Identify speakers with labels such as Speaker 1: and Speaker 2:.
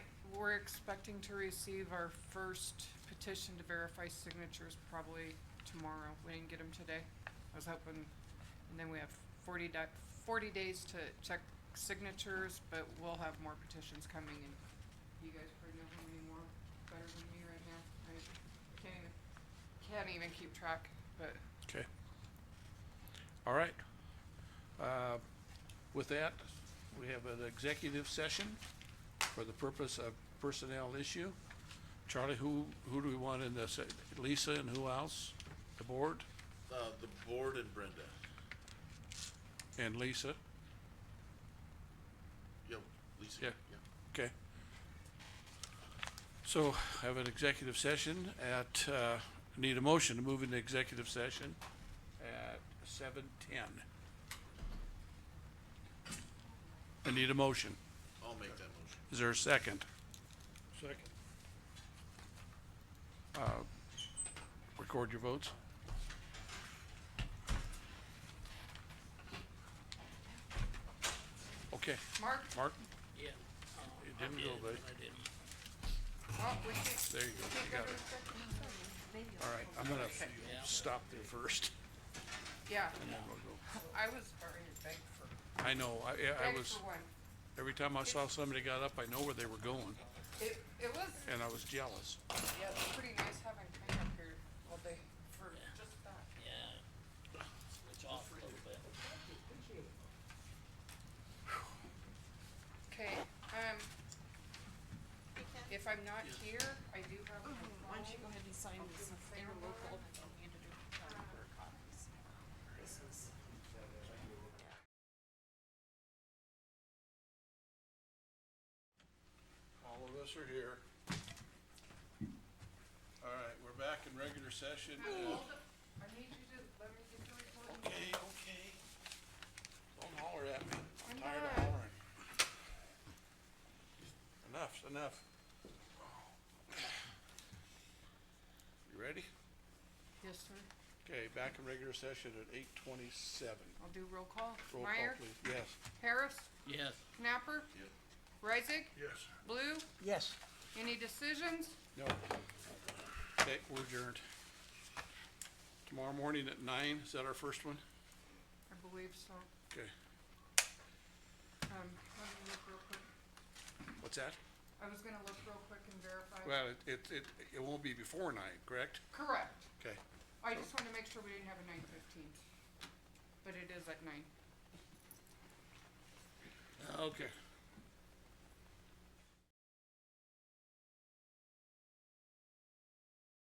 Speaker 1: we're expecting to receive our first petition to verify signatures probably tomorrow. We didn't get them today. I was hoping, and then we have forty di- forty days to check signatures, but we'll have more petitions coming in. You guys probably know how many more better than me right now. I can't even, can't even keep track, but
Speaker 2: Okay. All right. Uh, With that, we have an executive session for the purpose of personnel issue. Charlie, who, who do we want in this? Lisa and who else? The board
Speaker 3: Uh, the board and Brenda.
Speaker 2: and Lisa?
Speaker 3: Yep, Lisa.
Speaker 2: Yeah. Okay. So have an executive session at, uh, need a motion to move into executive session at seven ten. I need a motion.
Speaker 3: I'll make that motion.
Speaker 2: Is there a second? Second. Uh, Record your votes. Okay,
Speaker 1: Mark,
Speaker 2: Mark,
Speaker 4: Yeah. Oh,
Speaker 2: It
Speaker 4: I
Speaker 2: didn't
Speaker 4: did,
Speaker 2: go,
Speaker 4: but
Speaker 2: buddy.
Speaker 4: I didn't.
Speaker 1: oh, we can't,
Speaker 2: there you go,
Speaker 1: can't
Speaker 2: you
Speaker 1: go
Speaker 2: got
Speaker 1: to
Speaker 2: it.
Speaker 1: executive session.
Speaker 2: All right, I'm gonna
Speaker 4: Yeah.
Speaker 2: stop there first.
Speaker 1: Yeah,
Speaker 2: and then we'll go.
Speaker 1: I was, already begged for,
Speaker 2: I know, I, I- I
Speaker 1: begged
Speaker 2: was,
Speaker 1: for one.
Speaker 2: every time I saw somebody got up, I know where they were going,
Speaker 1: It, it was,
Speaker 2: and I was jealous.
Speaker 1: yeah, it's pretty nice having Hank up here all day for just that.
Speaker 4: Yeah. Switch off a little bit.
Speaker 1: Okay, um, if I'm not here, I do have my
Speaker 5: Why don't you go
Speaker 1: phone.
Speaker 5: ahead and sign this interlocal, you need to do counter copies. This is.
Speaker 2: All of us are here. All right, we're back in regular session.
Speaker 1: I need you to let me get the recording.
Speaker 2: Okay, okay. Don't holler at me. I'm
Speaker 1: I'm
Speaker 2: tired of
Speaker 1: not.
Speaker 2: hollering. Enough's enough. You ready?
Speaker 1: Yes, sir.
Speaker 2: Okay, back in regular session at eight twenty-seven.
Speaker 1: I'll do roll call.
Speaker 2: Roll call,
Speaker 1: Meyer,
Speaker 2: please. Yes.
Speaker 1: Harris,
Speaker 4: Yes.
Speaker 1: Knapper,
Speaker 3: Yep.
Speaker 1: Reisig,
Speaker 2: Yes.
Speaker 1: Blue. Yes. Any decisions?
Speaker 2: No. Okay, we're adjourned. Tomorrow morning at nine, is that our first one?
Speaker 1: I believe so.
Speaker 2: Okay,
Speaker 1: Um, let me look real quick.
Speaker 2: what's that?
Speaker 1: I was gonna look real quick and verify.
Speaker 2: Well, it, it, it, it won't be before nine, correct?
Speaker 1: Correct.
Speaker 2: Okay,
Speaker 1: I just wanted to make sure we didn't have a nine fifteen. But it is at nine.
Speaker 2: okay.